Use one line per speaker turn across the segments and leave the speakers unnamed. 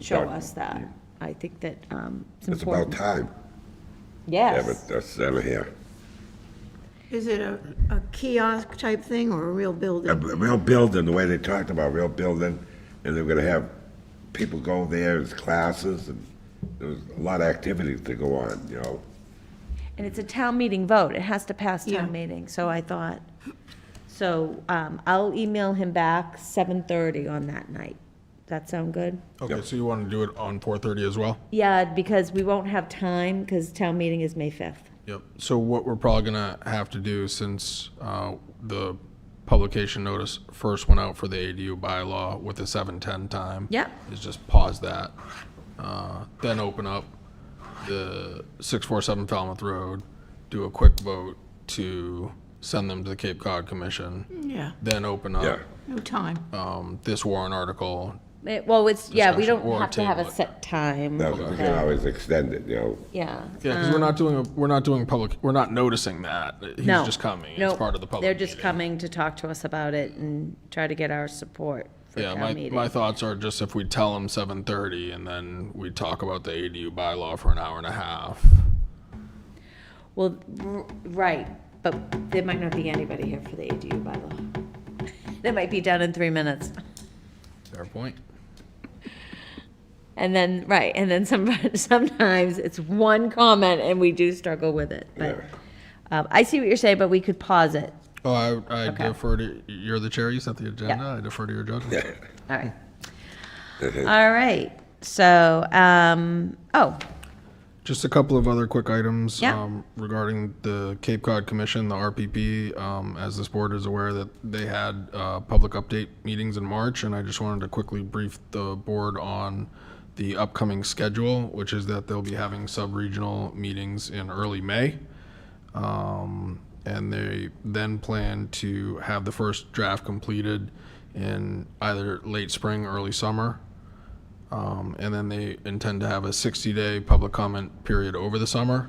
show
Right.
us that. I think that um, it's
It's about
important.
time.
Yes.
Have it uh, sent here.
Is it a a kiosk type thing or a real
A
building?
b- real building, the way they talked about real building, and they were gonna have people go there, as classes, and there was a lot of activities to go on, you know?
And it's a town meeting vote, it has to pass
Yeah.
town meeting, so I thought, so um, I'll email him back 7:30 on that night. That sound good?
Okay, so you want to do it on 4:30 as well?
Yeah, because we won't have time, because town meeting is May 5th.
Yep. So what we're probably gonna have to do, since uh, the publication notice first went out for the ADU bylaw with the 7:10 time.
Yep.
Is just pause that, uh, then open up the 647 Falmouth Road, do a quick vote to send them to the Cape Cod Commission,
Yeah,
then open up
Yeah.
no time.
um, this warrant article.
Eh, Well, it's, yeah, we
Discussion
don't
or
have to have a
table it.
set time.
That was, we can
Yeah.
always extend it, you know?
Yeah.
Yeah, because we're not doing, a- we're not doing public, we're not noticing that. He's
No.
just coming.
No,
It's part of the public
They're just
meeting.
coming to talk to us about it and try to get our support for
Yeah,
town
my,
meeting.
my thoughts are just if we tell them seven thirty and then we talk about the ADU bylaw for an hour and a half.
Well, r- right, but there might not be anybody here for the ADU bylaw. That might be done in three minutes.
Fair point.
And then, right, and then some, sometimes it's one comment and we do struggle with it. But, um, I see what you're saying, but we could pause it.
Oh, I, I
Okay.
defer to, you're the chair, you set the agenda, I defer to your judgment.
All right. All right, so, um, oh,
Just a couple of other quick items.
Yeah.
um, Regarding the Cape Cod Commission, the RPP, um, as this board is aware that they had, uh, public update meetings in March. And I just wanted to quickly brief the board on the upcoming schedule, which is that they'll be having sub-regional meetings in early May. Um, and they then plan to have the first draft completed in either late spring, early summer. Um, and then they intend to have a 60-day public comment period over the summer,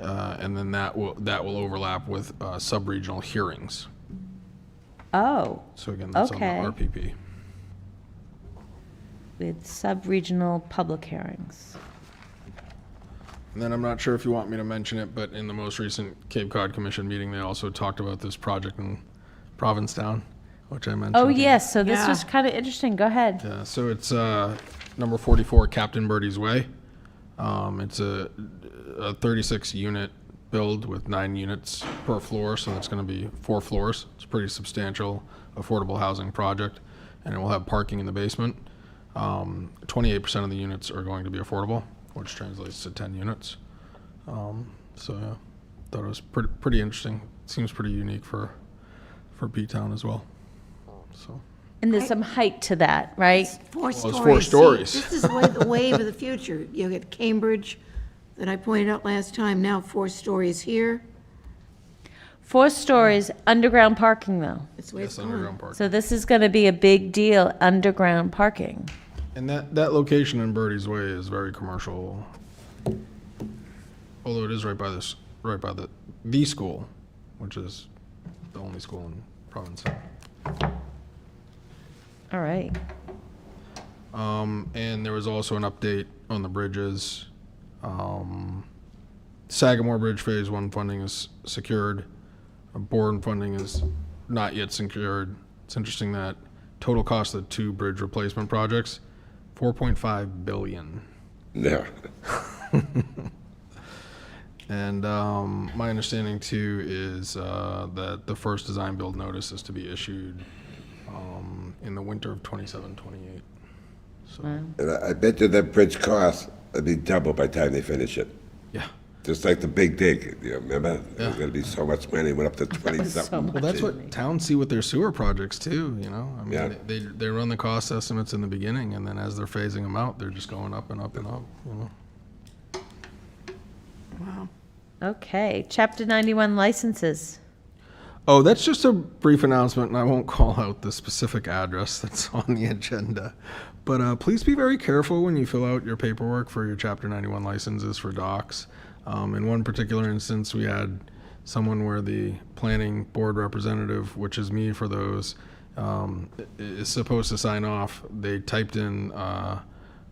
uh, and then that will that will overlap with uh, sub-regional hearings.
oh,
So again, that's
Okay.
on the RPP.
it's sub-regional public hearings.
And then I'm not sure if you want me to mention it, but in the most recent Cape Cod Commission meeting, they also talked about this project in Provincetown, which I mentioned.
Oh, yes, so this
Yeah.
was kind of interesting, go ahead.
Uh, so it's uh, number 44, Captain Birdie's Way. Um, it's a, a 36 unit build with nine units per floor, so that's going to be four floors. It's a pretty substantial affordable housing project, and it will have parking in the basement. Um, 28% of the units are going to be affordable, which translates to 10 units. Um, so yeah, thought it was pretty pretty interesting. Seems pretty unique for for B Town as well. So.
And there's some height to that, right?
Four
four
stories. See,
stories.
This is wa- the wave of the future. You get Cambridge, that I pointed out last time, now four stories here.
Four stories, underground parking though.
That's the way it's
Yes,
going.
underground parking.
So this is going to be a big deal, underground parking.
And that, that location in Birdie's Way is very commercial. Although it is right by this, right by the, the school, which is the only school in Provincetown.
All right.
Um, and there was also an update on the bridges. Um, Sagamore Bridge Phase One funding is secured. Bourne funding is not yet secured. It's interesting that total cost of the two bridge replacement projects, four point five billion.
Yeah.
And um, my understanding too is uh, that the first design build notice is to be issued um, in the winter of 27, 28.
And I, I bet you that bridge cost, it'll be double by the time they finish it.
Yeah.
Just like the big dig, you remember? There's
Yeah.
gonna be so much money, went up to twenty
was so
something.
Well, that's what towns see with their sewer projects too, you know? I mean,
Yeah.
they, they run the cost estimates in the beginning and then as they're phasing them out, they're just going up and up and up, you know?
Okay. Chapter 91 licenses.
Oh, that's just a brief announcement, and I won't call out the specific address that's on the agenda. But uh, please be very careful when you fill out your paperwork for your Chapter 91 licenses for docs. Um, in one particular instance, we had someone where the planning board representative, which is me for those, um, i- is supposed to sign off. They typed in uh,